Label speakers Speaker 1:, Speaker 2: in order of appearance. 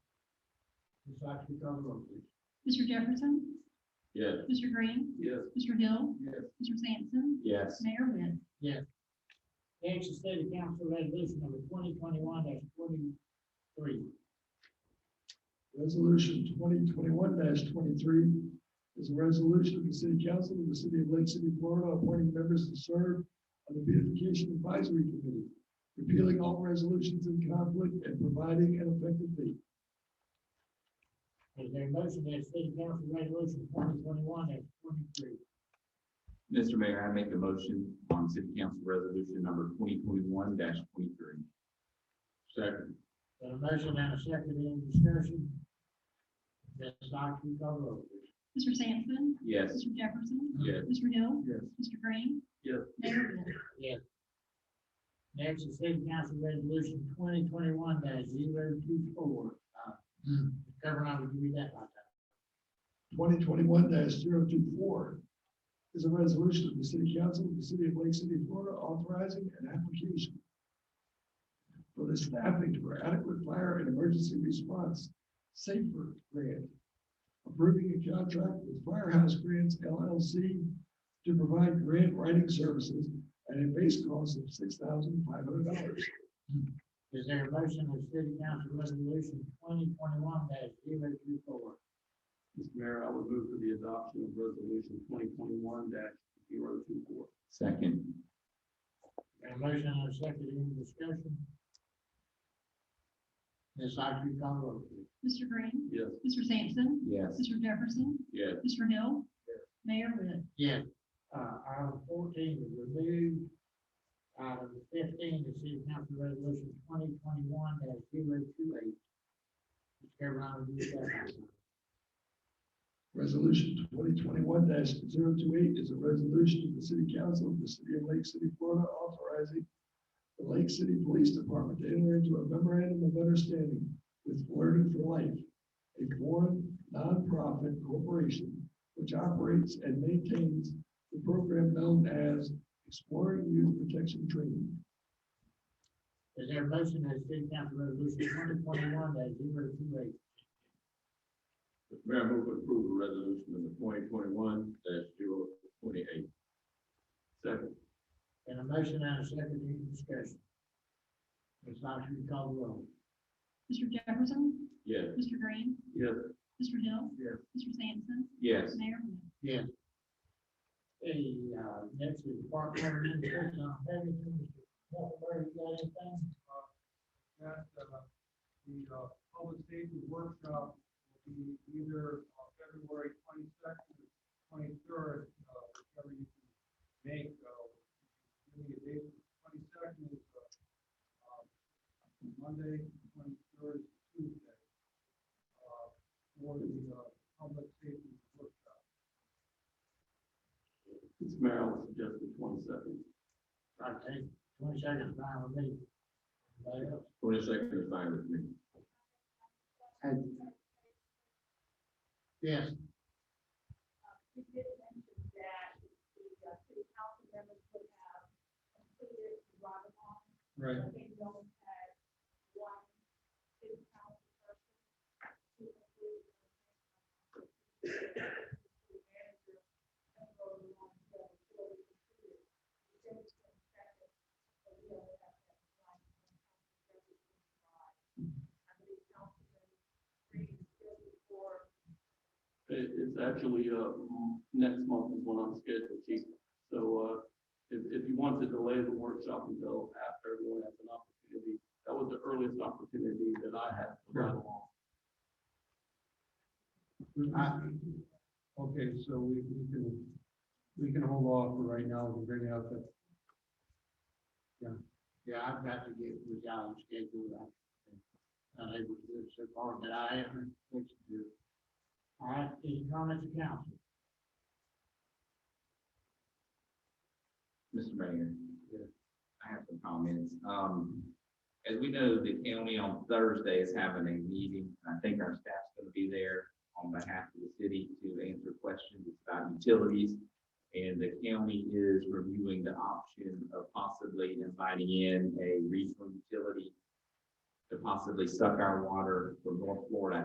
Speaker 1: Ms. Oxley, call the roll, please.
Speaker 2: Mr. Jefferson?
Speaker 3: Yes.
Speaker 2: Mr. Green?
Speaker 3: Yes.
Speaker 2: Mr. Hill?
Speaker 1: Yes.
Speaker 2: Mr. Sampson?
Speaker 3: Yes.
Speaker 2: Mayor Win?
Speaker 4: Action City Council Resolution number twenty twenty-one forty-three.
Speaker 5: Resolution twenty twenty-one twenty-three is a resolution of the city council of the city of Lake City, Florida, appointing members to serve on the beautification advisory committee, repealing all resolutions in conflict and providing an effective date.
Speaker 4: Is there a motion that City Council Resolution twenty twenty-one forty-three?
Speaker 3: Mr. Mayor, I make a motion on City Council Resolution number twenty twenty-one twenty-three. Second.
Speaker 4: Got a motion and a second, any discussion? Ms. Oxley, call the roll, please.
Speaker 2: Mr. Sampson?
Speaker 3: Yes.
Speaker 2: Mr. Jefferson?
Speaker 3: Yes.
Speaker 2: Mr. Hill?
Speaker 1: Yes.
Speaker 2: Mr. Green?
Speaker 3: Yes.
Speaker 2: Mayor Win?
Speaker 4: Next is City Council Resolution twenty twenty-one 24 Uh, Governor, I would read that by title.
Speaker 5: twenty twenty-one 24 is a resolution of the city council of the city of Lake City, Florida, authorizing an application for the staffing for adequate fire and emergency response safer grant, approving a contract with Firehouse Grants LLC to provide grant writing services at a base cost of six thousand five hundred dollars.
Speaker 4: Is there a motion that City Council Resolution twenty twenty-one 24
Speaker 1: Mr. Mayor, I would move for the adoption of resolution twenty twenty-one dash zero two four.
Speaker 3: Second.
Speaker 4: Got a motion and a second, any discussion? Ms. Oxley, call the roll, please.
Speaker 2: Mr. Green?
Speaker 1: Yes.
Speaker 2: Mr. Sampson?
Speaker 3: Yes.
Speaker 2: Mr. Jefferson?
Speaker 3: Yes.
Speaker 2: Mr. Hill? Mayor Win?
Speaker 4: Yes. Uh, item fourteen is removed. Item fifteen is City Council Resolution twenty twenty-one 28 Mr. Carolina, do you have that?
Speaker 5: Resolution twenty twenty-one 28 is a resolution of the city council of the city of Lake City, Florida, authorizing the Lake City Police Department to enter into a memorandum of understanding with Learning for Life, a foreign nonprofit corporation which operates and maintains the program known as Exploring Youth Protection Training.
Speaker 4: Is there a motion that City Council Resolution twenty twenty-one 28
Speaker 3: Mayor, I move to approve resolution number twenty twenty-one dash zero twenty-eight. Second.
Speaker 4: And a motion and a second, any discussion? Ms. Oxley, call the roll.
Speaker 2: Mr. Jefferson?
Speaker 3: Yes.
Speaker 2: Mr. Green?
Speaker 1: Yes.
Speaker 2: Mr. Hill?
Speaker 1: Yes.
Speaker 2: Mr. Sampson?
Speaker 3: Yes.
Speaker 2: Mayor Win?
Speaker 4: Yes. Hey, uh, next is Park Board Administration, I'm having to, Mr. Huckleberry, you got anything?
Speaker 6: that uh, the uh, public safety workshop will be either uh, February twenty-second or twenty-third, uh, whichever you can make. uh, Give me a date, twenty-second is uh, um, Monday, twenty-third is Tuesday. uh, For the uh, public safety workshop.
Speaker 1: Mr. Mayor, I would suggest the twenty-second.
Speaker 4: I take twenty seconds, fine with me. Anybody else?
Speaker 3: Twenty-second is fine with me.
Speaker 4: Yes,
Speaker 7: You did mention that the uh, city council members would have completed the run along.
Speaker 6: Right.
Speaker 7: I think we only had one city council person to complete. the manager and go along with the four we completed. We said it's gonna be seven, but we only have that one council member in July. I believe council member three is still before
Speaker 1: It, it's actually, uh, m- next month is when I'm scheduled, Chief. So, uh, if, if you want to delay the workshop until after everyone has an opportunity, that was the earliest opportunity that I had to run along.
Speaker 4: Mm-hmm.
Speaker 6: Uh, Okay, so we we can, we can hold off for right now, we can bring out the
Speaker 4: yeah, I've got to get with y'all schedule. I'm not able to do it so far, but I am, what to do. All right, any comments, council?
Speaker 3: Mr. Mayor. I have some comments. Um, as we know, the county on Thursday is having a meeting. I think our staff's gonna be there on behalf of the city to answer questions about utilities. And the county is reviewing the option of possibly inviting in a regional utility to possibly suck our water from North Florida